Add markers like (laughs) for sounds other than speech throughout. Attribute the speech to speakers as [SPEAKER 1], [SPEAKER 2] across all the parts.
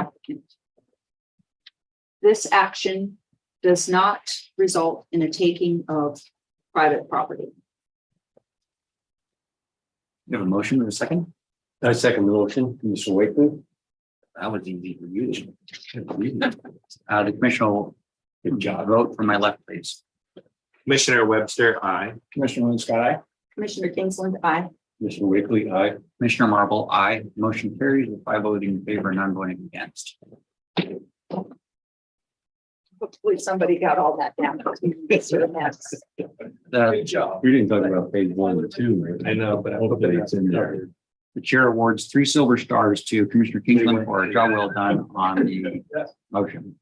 [SPEAKER 1] applicant. This action does not result in a taking of private property.
[SPEAKER 2] You have a motion and a second?
[SPEAKER 3] I second the motion, Commissioner Wakeman.
[SPEAKER 2] That was easy for you. Uh, the commissioner, good job. Vote for my left, please.
[SPEAKER 4] Commissioner Webster, I.
[SPEAKER 3] Commissioner Linsky, aye.
[SPEAKER 1] Commissioner Kingsland, I.
[SPEAKER 3] Commissioner Wakely, aye.
[SPEAKER 2] Commissioner Marble, I Motion carries with five voting in favor and none voting against.
[SPEAKER 1] Hopefully somebody got all that down. It's a mess.
[SPEAKER 2] The,
[SPEAKER 4] Good job.
[SPEAKER 3] We didn't talk about page one and two, right?
[SPEAKER 4] I know, but I hope
[SPEAKER 3] Hopefully it's in there.
[SPEAKER 2] the chair awards three silver stars to Commissioner Kingsland for a job well done on the motion.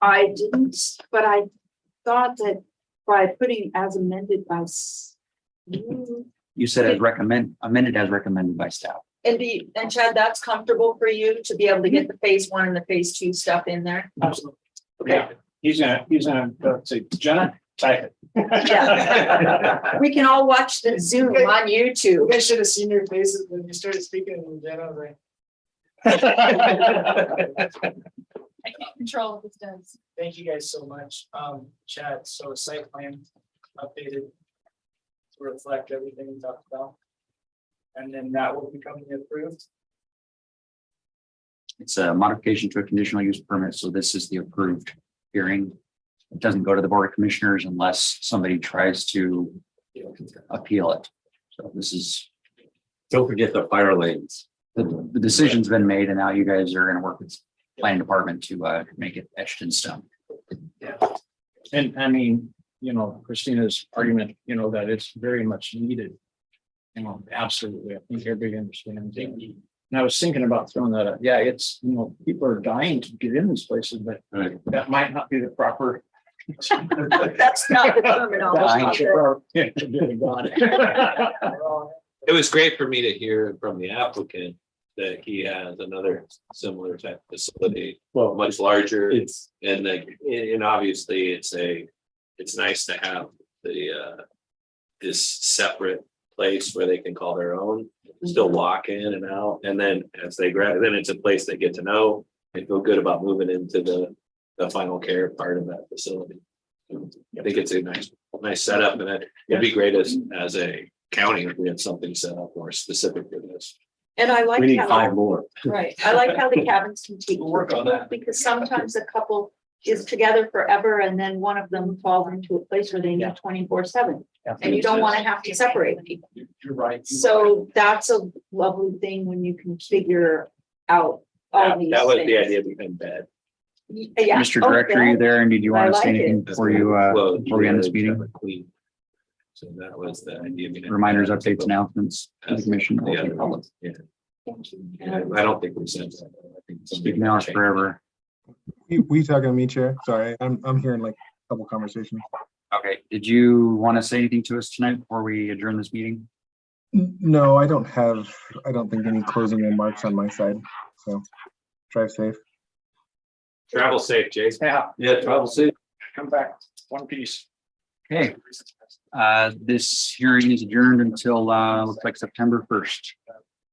[SPEAKER 1] I didn't, but I thought that by putting as amended by s- you,
[SPEAKER 2] You said as recommend, amended as recommended by staff.
[SPEAKER 1] and the, and Chad, that's comfortable for you to be able to get the phase one and the phase two stuff in there?
[SPEAKER 5] Absolutely.
[SPEAKER 1] Okay,
[SPEAKER 5] Yeah, he's gonna, he's gonna go say, Jenna, type
[SPEAKER 1] Yeah.
[SPEAKER 5] it.
[SPEAKER 1] we can all watch the Zoom on
[SPEAKER 5] You
[SPEAKER 1] YouTube.
[SPEAKER 5] guys should have seen your faces when you started speaking and Jenna was like.
[SPEAKER 6] I can't control what this does.
[SPEAKER 5] Thank you guys so much, um, Chad, so site plan updated. (laughs) To reflect everything we talked about. And then that will become the approved.
[SPEAKER 2] It's a modification to a conditional use permit, so this is the approved hearing. It doesn't go to the Board of Commissioners unless somebody tries to appeal it. So this is,
[SPEAKER 3] Don't forget the fire lanes.
[SPEAKER 2] the, the decision's been made and now you guys are gonna work with the planning department to, uh, make it etched in stone.
[SPEAKER 5] And I mean, you know, Christina's argument, you know, that it's very much needed. You know, absolutely. I think everybody understands. that. And I was thinking about throwing that up. Yeah, it's, you know, people are dying to get in these places, but
[SPEAKER 3] Right.
[SPEAKER 5] that might not be
[SPEAKER 1] (laughs)
[SPEAKER 5] the proper.
[SPEAKER 1] That's not the
[SPEAKER 5] (laughs)
[SPEAKER 1] terminology. (laughs)
[SPEAKER 4] It was great for me to hear from the applicant that he has another similar type facility,
[SPEAKER 3] Well,
[SPEAKER 4] much larger.
[SPEAKER 3] it's,
[SPEAKER 4] And like, and, and obviously it's a, it's nice to have the, uh, this separate place where they can call their own, still walk in and out. And then as they grad, then it's a place they get to know and feel good about moving into the, the final care part of that facility. I think it's a nice, nice setup and it- it'd be great as, as a county if we had something set up more specific for this.
[SPEAKER 1] And I like.
[SPEAKER 3] we need
[SPEAKER 1] how-
[SPEAKER 3] five more.
[SPEAKER 1] Right, I like how
[SPEAKER 4] (laughs)
[SPEAKER 1] the cabins can keep.
[SPEAKER 4] We'll work on that.
[SPEAKER 1] Because sometimes a couple is together forever and then one of them falls into a place where they need twenty-four seven. And you don't want to have to separate people.
[SPEAKER 5] You're right.
[SPEAKER 1] So that's a lovely thing when you can figure out all
[SPEAKER 4] That
[SPEAKER 1] these
[SPEAKER 4] that was the
[SPEAKER 1] things.
[SPEAKER 4] idea behind bed.
[SPEAKER 1] Y- Yeah.
[SPEAKER 2] Mr. Director, are you there? And did you
[SPEAKER 1] I
[SPEAKER 2] want to
[SPEAKER 1] like
[SPEAKER 2] say anything
[SPEAKER 1] it.
[SPEAKER 2] before you, uh,
[SPEAKER 4] Well,
[SPEAKER 2] before we end this
[SPEAKER 4] you
[SPEAKER 2] meeting?
[SPEAKER 4] have a clean- So that was the idea. behind
[SPEAKER 2] Reminders,
[SPEAKER 4] that.
[SPEAKER 2] updates, announcements, to the commission, or to the public.
[SPEAKER 4] Yeah,
[SPEAKER 1] Thank you.
[SPEAKER 4] and I I don't think we said that. I think somebody-
[SPEAKER 2] Speak now or forever.
[SPEAKER 7] We, we talking to me, Chair? Sorry, I'm, I'm hearing like a couple conversations.
[SPEAKER 2] Okay, did you want to say anything to us tonight before we adjourn this meeting?
[SPEAKER 7] N- No, I don't have, I don't think any closing remarks on my side, so drive safe.
[SPEAKER 4] Travel safe, Jason.
[SPEAKER 5] Yeah,
[SPEAKER 4] Yeah, travel safe.
[SPEAKER 5] come back, one piece.
[SPEAKER 2] Okay, uh, this hearing is adjourned until, uh, looks like September first.